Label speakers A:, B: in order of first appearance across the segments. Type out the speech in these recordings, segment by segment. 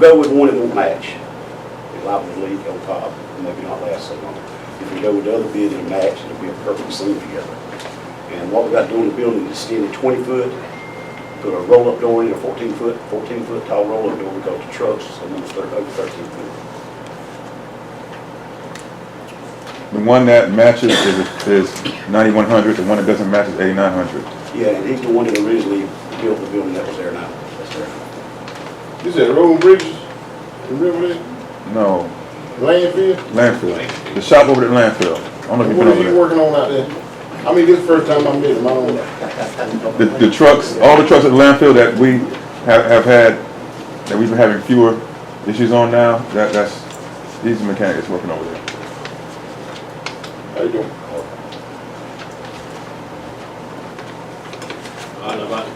A: Go with one that won't match. It'll obviously leak on top, and maybe not last so long. If we go with the other bid and match, it'll be a perfect seam together. And what we got doing the building is extended twenty foot, put a roll-up door in, a fourteen foot, fourteen foot tall roll-up door, we go to trucks, so almost thirty, over thirteen foot.
B: The one that matches is, is ninety-one hundred, the one that doesn't match is eighty-nine hundred.
A: Yeah, and he's the one that originally built the building that was there now, that's there now.
C: You said road bridges, remember that,
B: No,
C: landfill?
B: landfill, the shop over at landfill, I don't know if you've
C: What
B: been
C: are
B: over
C: you
B: there.
C: working on out there? I mean, this is the first time I met him, I don't know.
B: The, the trucks, oh. all the trucks at landfill that we have, have had, that we've been having fewer issues on now, that, that's, these mechanics working over there.
C: How you doing?
D: I know about it.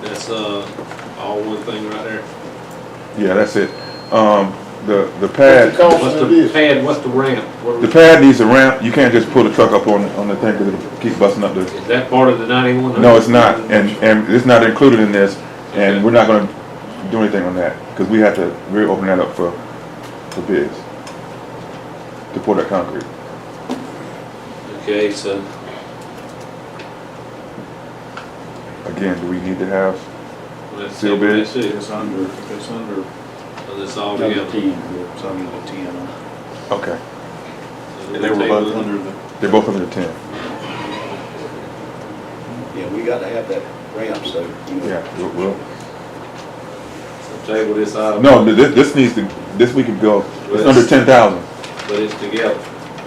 D: That's, uh, all one thing right there.
B: Yeah, that's it. Um, the, the
C: What's the
B: pad,
C: cost
D: What's
C: of
D: the
C: this?
D: pad, what's the ramp? What are
B: the
D: we-
B: pad needs a ramp, you can't just pull the truck up on, on the thing, cause it'll keep busting up the
D: Is that part of the ninety-one?
B: No, it's not, and, and it's not included in this, and we're not gonna do anything on that, because we have to, we're opening that up for, for bids. To pour that concrete.
D: Okay, so,
B: Again, do we need to have,
D: let's see.
B: Seal bid?
D: That's it.
E: It's under, it's under
D: So that's all
E: another
D: together.
E: ten, it's under the ten.
B: okay,
D: So
E: They were
D: table
E: both
D: it.
E: under the,
B: they're both under the ten,
A: Yeah, we gotta have that ramp, so, you know,
B: yeah, we'll, we'll-
D: So Table this item.
B: no, th- this, this needs to, this we can go, it's under ten thousand,
D: But it's together.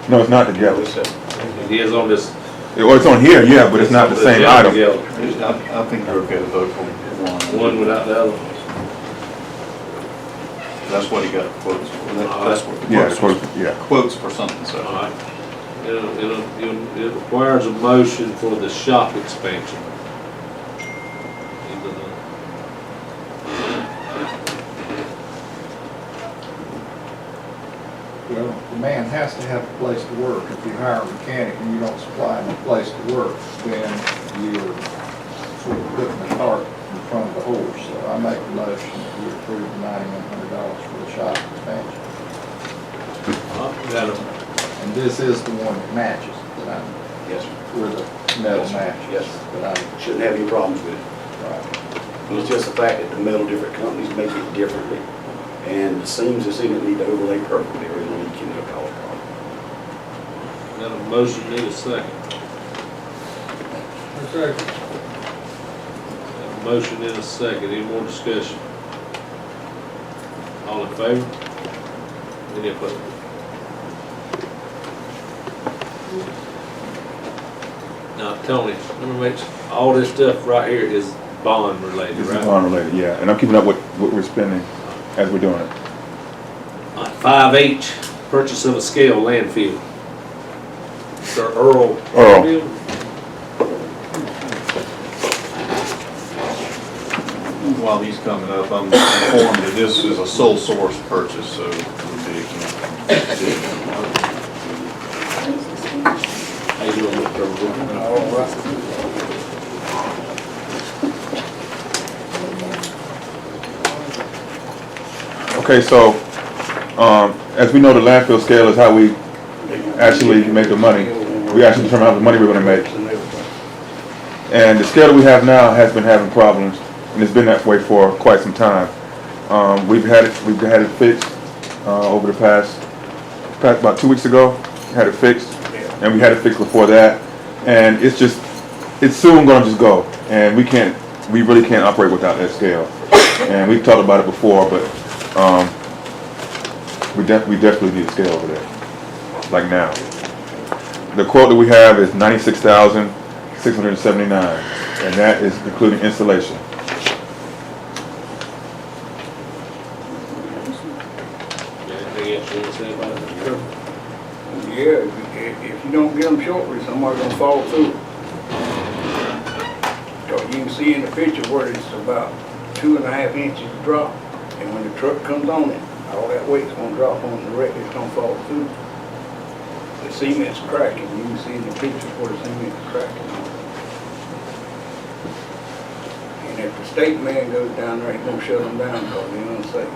B: no, it's not
A: yeah,
B: together,
A: it's, uh,
D: It is on this.
B: or it's on here, yeah, but it's not the same
D: all
B: item.
D: together.
E: I, I think you're okay to vote for one.
D: One without the other.
E: That's what he got quotes for, That-
A: Uh,
E: that's what the
B: Yeah, it's
E: quotes,
B: close, yeah,
E: were. quotes for something,
D: All
E: so.
D: right. It'll- it'll- it'll- It requires a motion for the shop expansion. Into the-
F: Well, the man has to have a place to work. If you hire a mechanic and you don't supply him a place to work, then you're sort of putting the cart in front of the horse. So I make the motion that we approve the ninety-one hundred dollars for the shop expansion.
D: All right, got a
F: And this is the one that matches, that I'm,
A: yes, sir.
F: where the metal
A: Yes,
F: matches.
A: sir.
F: That I'm,
A: shouldn't have any problems with it.
F: right.
A: It's just the fact that the metal different companies make it differently, and the seams that's in it need to overlay perfectly, or it'll leak into the color problem.
D: Got a motion, need a second. Got a motion and a second, any more discussion? All in favor? Any opposed? Now, Tony, let me make, sure- all this stuff right here is bond related,
B: this is
D: right?
B: unrelated, yeah, and I'm keeping up with what we're spending as we're doing it.
D: Uh, Five H, purchase of a scale landfill. Sir Earl.
B: Earl.
D: Bill?
E: While he's coming up, I'm informed that this is a sole source purchase, so it would be.
D: How you doing, Mr. Earl?
B: Okay, so, um, as we know, the landfill scale is how we actually make the money. We actually determine how much money we're gonna make. And the scale that we have now has been having problems, and it's been that way for quite some time. Um, we've had it, we've had it fixed, uh, over the past, past about two weeks ago, had it fixed, and we had it fixed before that. And it's just, it's soon gonna just go, and we can't, we really can't operate without that scale. And we've talked about it before, but, um, we def, we definitely need a scale over there, like now. The quote that we have is ninety-six thousand, six hundred and seventy-nine, and that is including installation.
D: Anything else you want to say about it?
G: Yeah, if- if, if you don't get them shortly, somebody's gonna fall through. So you can see in the picture where it's about two and a half inches drop, and when the truck comes on it, all that weight's gonna drop on the wreck, it's gonna fall through. The cement's cracking, you can see in the picture where the cement's cracking. And if the state man goes down there, he's gonna shut them down, 'cause they're unsafe.